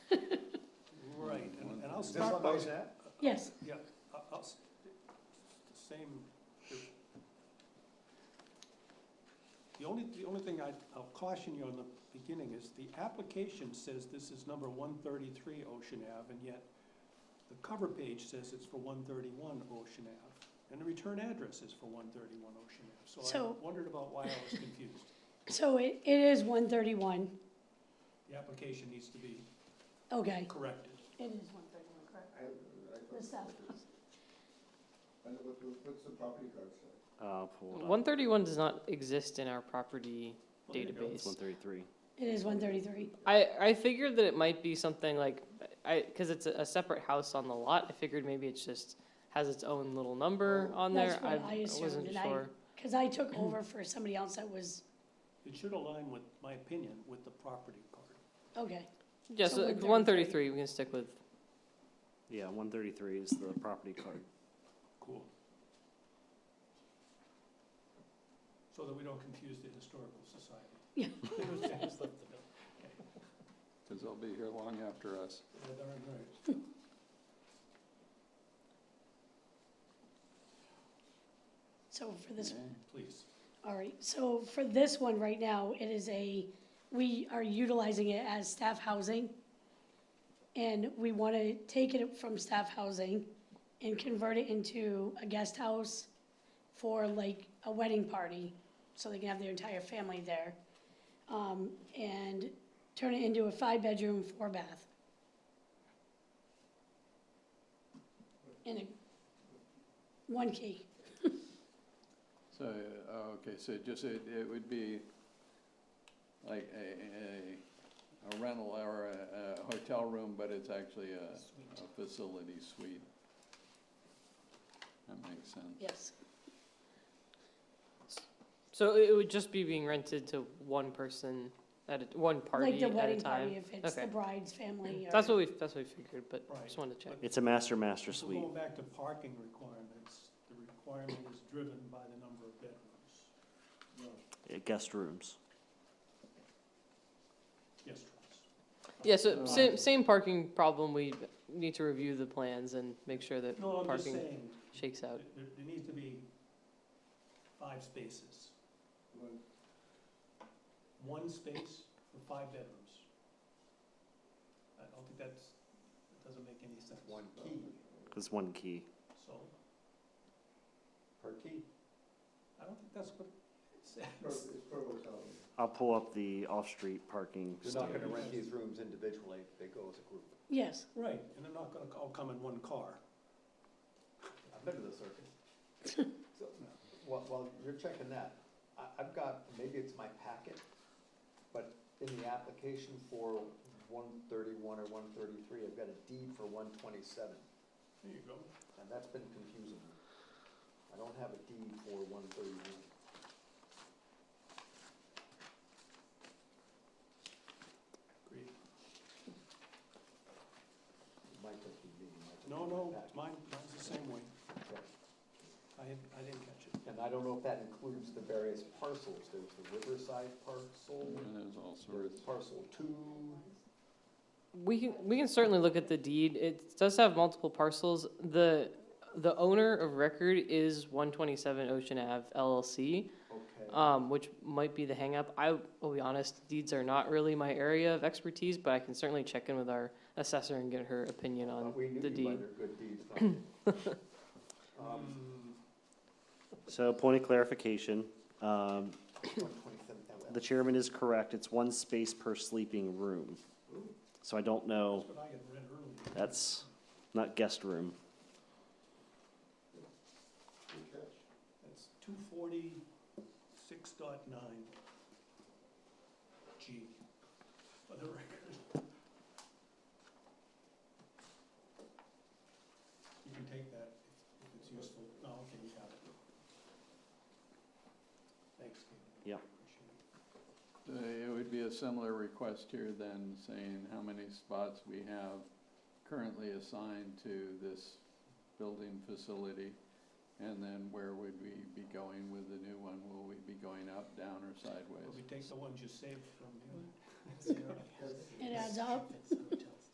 I'll This start one by goes- that. Yes, Yeah, I- I'll, s- same. The only, the only thing I, I'll caution you on the beginning is the application says this is number one thirty-three Ocean Ave, and yet the cover page says it's for one thirty-one Ocean Ave, and the return address is for one thirty-one Ocean Ave. So So- I wondered about why I was confused. so it, it is one thirty-one, The application needs to be okay. corrected. It is one thirty-one, correct. I- I- The south. And what- what's the property card say? Uh, pull it up. One thirty-one does not exist in our property Well, there you go. It's database. one thirty-three. It is one thirty-three, I, I figured that it might be something like, I, cause it's a, a separate house on the lot, I figured maybe it's just, has its own little number on there, That's I what I I assumed, wasn't and I- sure. because I took over for somebody else that was, It should align with, my opinion, with the property card. okay, Yeah, So so 133. one thirty-three, we can stick with, Yeah, one thirty-three is the property card. Cool. So that we don't confuse the historical society. Yeah. They just left it up. Because they'll be here long after us. Yeah, they're right. so for this, Okay. Please. all right, so for this one right now, it is a, we are utilizing it as staff housing. And we want to take it from staff housing and convert it into a guest house for like a wedding party, so they can have their entire family there. Um, and turn it into a five-bedroom, four-bath. And a, one key, So, uh, okay, so just, it, it would be like a, a, a rental or a, a hotel room, but it's actually a, a facility suite. That makes sense. yes, so it it would just be being rented to one person at a, one like party the at a wedding party, time. if it's the Okay. bride's family or. That's what we, that's what we figured, but Right, just wanted to check. but- It's a master master So suite. going back to parking requirements, the requirement is driven by the number of bedrooms. No. uh, guest rooms. Yes, Travis? Yeah, so Uh, same, same parking problem, we need to review the plans and make sure that No, I'm just Parking. saying, shakes out. there, there- there needs to be five spaces. One- One space for five bedrooms. I don't think that's, that doesn't make any sense. One key It's one key. So, per key. I don't think that's what it Per- says. It's per hotel. room. I'll pull up the off-street parking. You're not standard. gonna rent these rooms individually, they go as a group. Yes, Right, and they're not gonna all come in one car. I've been to the circus. So, while, while you're checking that, I, I've got, maybe it's my packet, but in the application for one thirty-one or one thirty-three, I've got a deed for one twenty-seven, There you go. and that's been confusing me. I don't have a deed for one thirty-one. Great. Might just be me, might just be No, my no, packet. mine, mine's the same way. Okay. I, I didn't catch it. And I don't know if that includes the various parcels, there's the Riverside parcel, And there's all there's sorts. parcel two. We can, we can certainly look at the deed. It does have multiple parcels. The, the owner of record is one twenty-seven Ocean Ave LLC, Okay. um, which might be the hangup. I will be honest, deeds are not really my area of expertise, but I can certainly check in with our assessor and get her opinion on But we knew the you by deed. their good deeds, Frank. Um, Um, So point of clarification, um, 127 the chairman is correct. It's one space per sleeping room. So I don't know, Hmm, That's what I had read earlier. that's not guest room. Good catch. That's two forty-six dot nine. G, for the record. You can take that if if it's useful. No, okay, you have it. Thanks, David. Yeah. Appreciate Uh, it. It would be a similar request here then, saying how many spots we have currently assigned to this building facility. And then where would we be going with the new one? Will we be going up, down, or Well, sideways? we take the ones you saved from the other. it adds up. It's hotel.